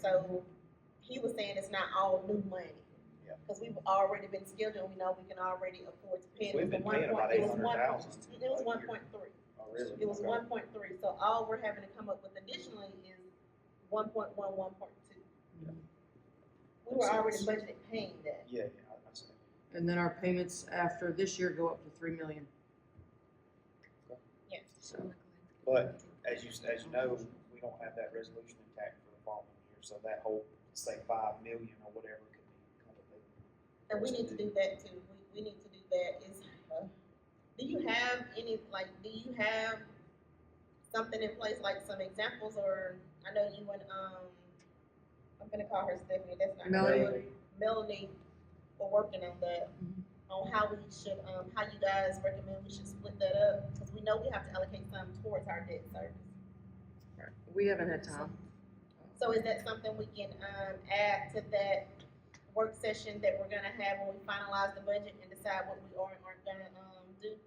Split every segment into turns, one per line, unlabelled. so he was saying it's not all new money.
Yeah.
Cause we've already been skilled and we know we can already afford to pay. it. It
We've
was
been
one
paying about
point- it was
800,000
one- It was
a
one
year.
point three.
Oh, really?
It was
Okay.
one point three, so all we're having to come up with additionally is one point one, one point two.
Yeah.
We were
Makes
already
sense.
budgeted paying that,
Yeah, yeah, I- I see.
And then our payments after this year go up to three million.
yes.
So
But as you, as you know, we don't have that resolution intact for the following year, so that whole, say, five million or whatever could be kind of a-
And we need to do that too, we, we need to do that is, uh, do you have any, like, do you have something in place, like some examples, or, I know you and, um, I'm gonna call her Stephanie, that's not. her
Melanie.
name. Melanie, were working on that,
Mhm.
on how we should, um, how you guys recommend we should split that up, cause we know we have to allocate some towards our debt service.
we haven't had time.
So is that something we can, um, add to that work session that we're gonna have when we finalize the budget and decide what we are and aren't gonna, um, do?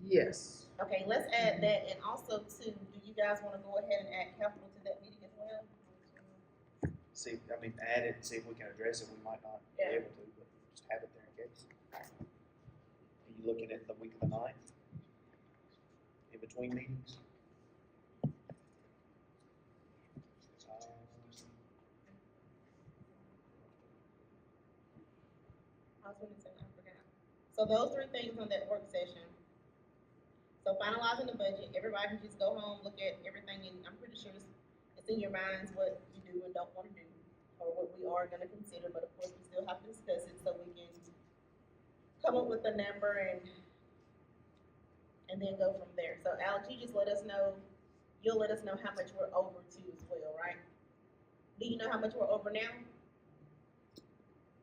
Yes.
Okay, let's add that, and also too, do you guys wanna go ahead and add capital to that meeting as well?
See, I mean, add it, see if we can address it, we might not be
Yeah.
able to, but just have it there in case. Are you looking at the week of the ninth? In between meetings? Uh, Um,
I was gonna say, I forgot. So those three things on that work session. So finalizing the budget, everybody can just go home, look at everything, and I'm pretty sure it's, it's in your minds what you do and don't wanna do, or what we are gonna consider, but of course, we still have to discuss it, so we can come up with a number and, and then go from there. So Alex, you just let us know, you'll let us know how much we're over to as well, right? Do you know how much we're over now?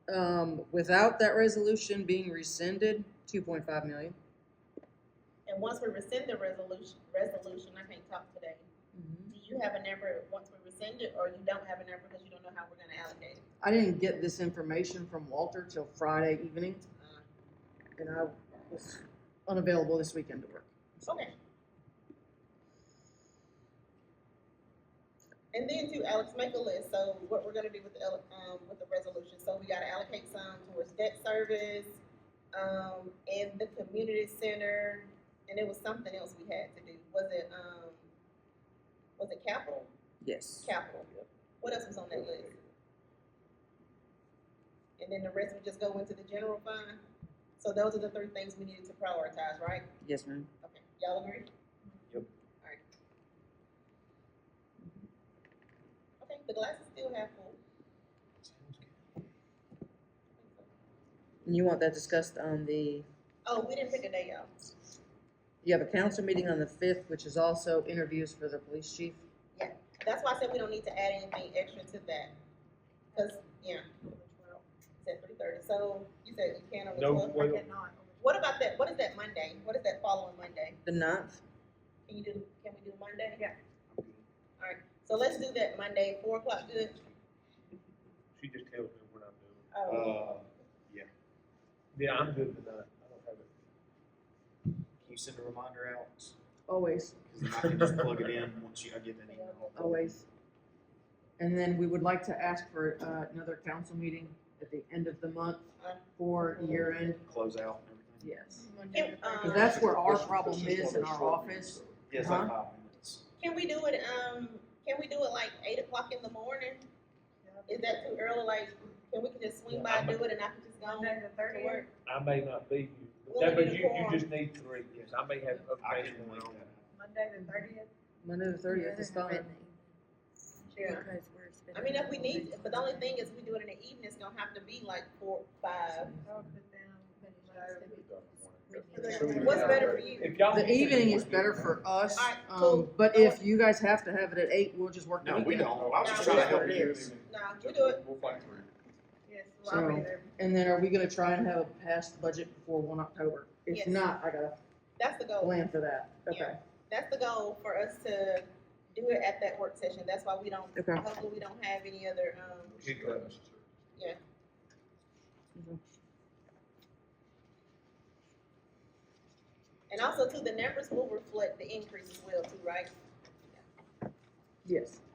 Um, without that resolution being rescinded, two point five million.
And once we rescind the resolution, resolution, I can't talk today,
Mm-hmm.
do you have a number once we rescind it, or you don't have a number because you don't know how we're gonna allocate it?
I didn't get this information from Walter till Friday evening,
Uh,
and I was unavailable this weekend to work.
Okay. And then to Alex, make a list, so what we're gonna do with the, ele- um, with the resolution, so we gotta allocate some towards debt service, um, and the community center, and it was something else we had to do, was it, um, was it capital?
Yes.
Capital, what else was on that list? and then the rest would just go into the general fund. So those are the three things we needed to prioritize, right?
Yes, ma'am.
Okay, y'all agree?
Yep.
Alright. Mm-hmm. Okay, the glass is still half full.
And you want that discussed on the,
Oh, we didn't pick a day, y'all.
you have a council meeting on the fifth, which is also interviews for the police chief.
That's why I said we don't need to add anything extra to that, cause, yeah. It's at three thirty, so you said you can on the
No,
twelfth?
wait.
What about that, what is that Monday? What is that following Monday?
The ninth,
Can you do, can we do Monday? Yeah.
I'm good.
So let's do that Monday, four o'clock, good?
She just tells me what I'm doing.
Oh,
Uh,
Yeah, I'm good with that. I don't have it.
can you send a reminder out?
always,
Cause I can just plug it in once you, I get that email.
always. And then we would like to ask for uh, another council meeting at the end of the month for year end,
Close out and everything.
yes.
Can, um,
Because that's where our problem is in our office.
Yeah, it's like five minutes.
Can we do it, um, can we do it like eight o'clock in the morning? Is that too early, like, can we can just swing by, do it, and I can just go
Monday the
to work?
I may not be you,
We'll
but that, but
need a
you, you
quorum.
just need three, yes, I may have
I
updated
can
one
link
on.
that.
Monday the thirtieth?
Monday the thirtieth is fine.
Yeah.
Because
I mean, if we need, but the only thing is, if we do it in the evening, it's gonna have to be like four, five. What's better for you?
If y'all.
The evening is better for us,
Alright,
um,
cool.
but if you guys have to have it at eight, we'll just work the
No, we
weekend.
don't, I was just trying to help you.
No, you do it.
We'll fight for it.
Yes, well, I'll be there.
And then are we gonna try and have a passed budget before one October?
Yes.
If not, I gotta
That's the goal.
plan for that, okay?
That's the goal for us to do it at that work session. That's why we don't,
Okay.
hopefully we don't have any other, um, yeah. And also too, the numbers will reflect the increase as well too, right?
Yes.